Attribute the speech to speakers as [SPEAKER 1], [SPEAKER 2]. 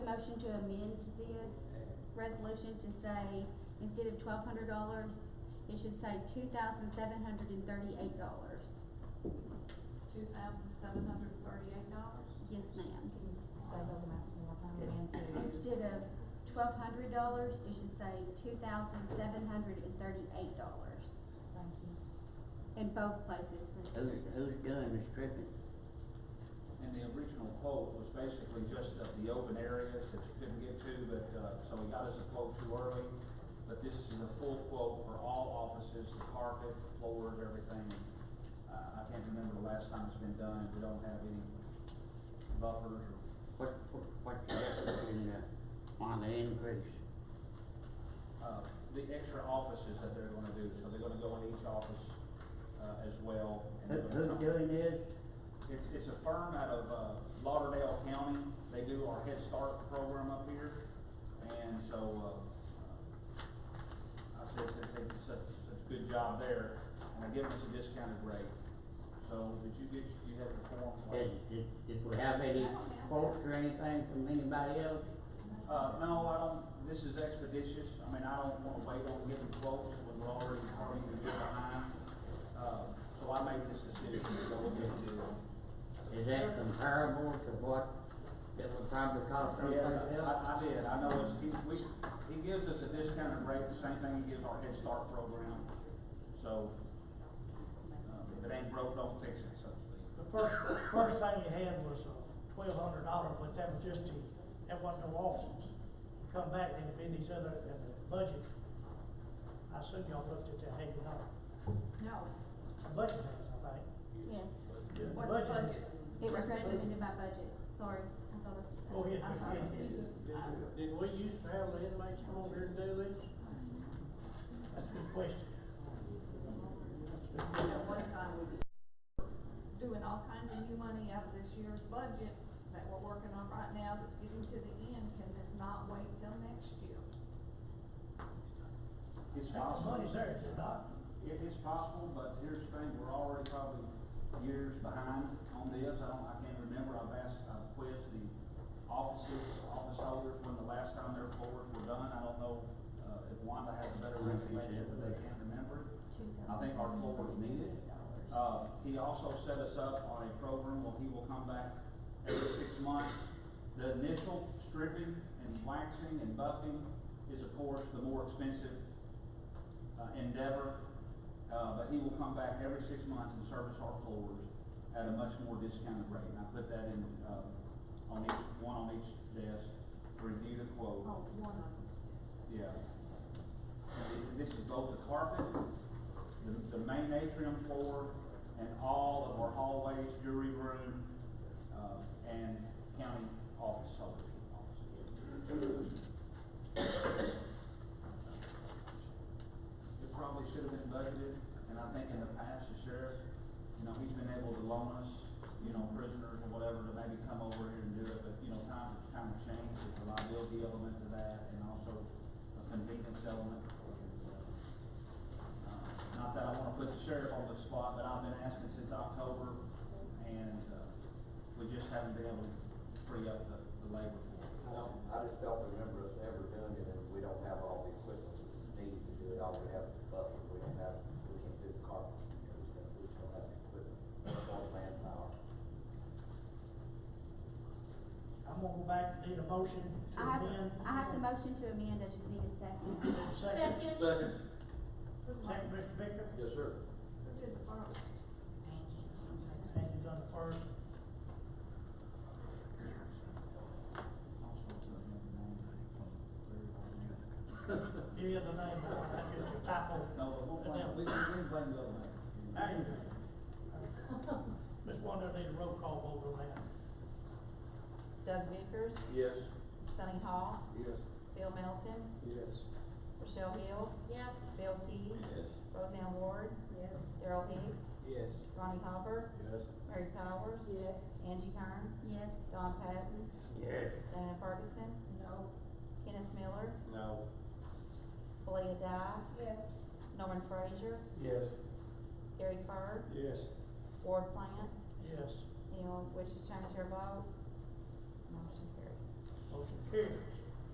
[SPEAKER 1] motion to amend this resolution to say, instead of twelve hundred dollars, it should say two thousand seven hundred and thirty-eight dollars.
[SPEAKER 2] Two thousand seven hundred thirty-eight dollars?
[SPEAKER 1] Yes, ma'am.
[SPEAKER 3] Say those amounts one more time again to,
[SPEAKER 1] Instead of twelve hundred dollars, it should say two thousand seven hundred and thirty-eight dollars.
[SPEAKER 3] thank you.
[SPEAKER 1] In both places. that
[SPEAKER 4] Who's,
[SPEAKER 1] it's-
[SPEAKER 4] who's doing the stripping?
[SPEAKER 5] And the original quote was basically just the, the open areas that you couldn't get to, but, uh, so he got us a quote too early. But this is a full quote for all offices, the carpet, floors, everything. Uh, I can't remember the last time it's been done, we don't have any buffers or,
[SPEAKER 4] What, what, what's the difference in uh, the, on the increase?
[SPEAKER 5] uh, the extra offices that they're gonna do. So they're gonna go in each office, uh, as well. and
[SPEAKER 4] Who,
[SPEAKER 5] they're gonna-
[SPEAKER 4] who's doing this?
[SPEAKER 5] It's, it's a firm out of, uh, Lauderdale County, they do our Head Start program up here, and so, uh, I said, since they did such, such a good job there, and I give us a discounted rate. So, did you get, you have the form?
[SPEAKER 4] Did, did, did we have any quotes or anything from anybody else?
[SPEAKER 5] Uh, no, I don't, this is expeditious, I mean, I don't wanna wait on getting quotes when we're already, already a bit behind. Uh, so I made this decision to go with it too.
[SPEAKER 4] Is that comparable to what it would probably cost someplace
[SPEAKER 5] Yeah,
[SPEAKER 4] else?
[SPEAKER 5] I, I did, I know, it's, he, we, he gives us a discounted rate, the same thing he gives our Head Start program, so, um, if it ain't broke, don't fix it, so to speak.
[SPEAKER 6] The first, first thing you had was twelve hundred dollars, but that was just to, that wasn't no offices. You Come back and it'd been these other, and the budget, I assume y'all looked at that, hey, you know,
[SPEAKER 2] No.
[SPEAKER 6] the budget has, I think.
[SPEAKER 1] Yes.
[SPEAKER 6] The
[SPEAKER 2] What the
[SPEAKER 6] has-
[SPEAKER 2] budget?
[SPEAKER 1] It was written into my budget, sorry, I thought I said.
[SPEAKER 6] Go ahead,
[SPEAKER 2] I'm sorry,
[SPEAKER 6] Vicki.
[SPEAKER 2] did, I,
[SPEAKER 7] Did we used to have the inmates come over here and do these?
[SPEAKER 6] That's a good question.
[SPEAKER 2] at one time we were doing all kinds of new money out of this year's budget that we're working on right now that's getting to the end, can this not wait till next year?
[SPEAKER 5] It's
[SPEAKER 6] Now, the
[SPEAKER 5] possible,
[SPEAKER 6] money's there, is it not?
[SPEAKER 5] it is possible, but here's the thing, we're already probably years behind on this, I don't, I can't remember, I've asked, I've quizzed the offices, office holders, when the last time their floors were done, I don't know, uh, if Wanda has better information, but they can't remember. I think our floor is needed. Uh, he also set us up on a program where he will come back every six months. The initial stripping and waxing and buffing is of course the more expensive, uh, endeavor. Uh, but he will come back every six months and service our floors at a much more discounted rate. And I put that in, uh, on each, one on each desk, review the quote.
[SPEAKER 2] Oh, one of them.
[SPEAKER 5] Yeah. And This is both the carpet, the, the main atrium floor, and all of our hallways, jury room, uh, and county office, soldier office. It probably should have been budgeted, and I think in the past, the sheriff, you know, he's been able to loan us, you know, prisoners or whatever to maybe come over here and do it, but, you know, times, times change, there's a liability element to that, and also a convenience element. Uh, Not that I wanna put the sheriff on the spot, but I've been asking since October, and, uh, we just haven't been able to free up the, the labor for it.
[SPEAKER 8] I just don't remember us ever doing it, and we don't have all the equipment that's needed to do it, all we have is buffer, we don't have, we can't do the carpet, you know, we just don't- we just don't have the equipment, or manpower.
[SPEAKER 6] I'm gonna go back, need a motion to
[SPEAKER 1] I have,
[SPEAKER 6] amend.
[SPEAKER 1] I have the motion to amend, I just need a second.
[SPEAKER 6] Second,
[SPEAKER 5] Second.
[SPEAKER 6] second, Mr. Victor,
[SPEAKER 5] Yes, sir.
[SPEAKER 2] Who did the first?
[SPEAKER 6] and you done the first. Give you the name, that's just a typo.
[SPEAKER 5] No, but we'll blame, we, we can blame the other man.
[SPEAKER 6] Hey. Ms. Wonder, need a roll call vote on that.
[SPEAKER 3] Doug Bickers,
[SPEAKER 5] Yes.
[SPEAKER 3] Sunny Hall,
[SPEAKER 5] Yes.
[SPEAKER 3] Bill Melton,
[SPEAKER 5] Yes.
[SPEAKER 3] Rochelle Hill,
[SPEAKER 2] Yes.
[SPEAKER 3] Bill Key,
[SPEAKER 5] Yes.
[SPEAKER 3] Roseanne Ward,
[SPEAKER 2] Yes.
[SPEAKER 3] Daryl Hicks,
[SPEAKER 5] Yes.
[SPEAKER 3] Ronnie Hopper,
[SPEAKER 5] Yes.
[SPEAKER 3] Mary Powers,
[SPEAKER 2] Yes.
[SPEAKER 3] Angie Hearn,
[SPEAKER 1] Yes,
[SPEAKER 3] Don Patton,
[SPEAKER 4] Yes.
[SPEAKER 3] Dana Ferguson,
[SPEAKER 2] No.
[SPEAKER 3] Kenneth Miller,
[SPEAKER 7] No.
[SPEAKER 3] Belinda Dye,
[SPEAKER 2] Yes.
[SPEAKER 3] Norman Frazier,
[SPEAKER 7] Yes.
[SPEAKER 3] Gary Fur,
[SPEAKER 7] Yes.
[SPEAKER 3] Ward Plant,
[SPEAKER 6] Yes.
[SPEAKER 3] anyone wish to change their vote? Motion carries.
[SPEAKER 6] Motion carried.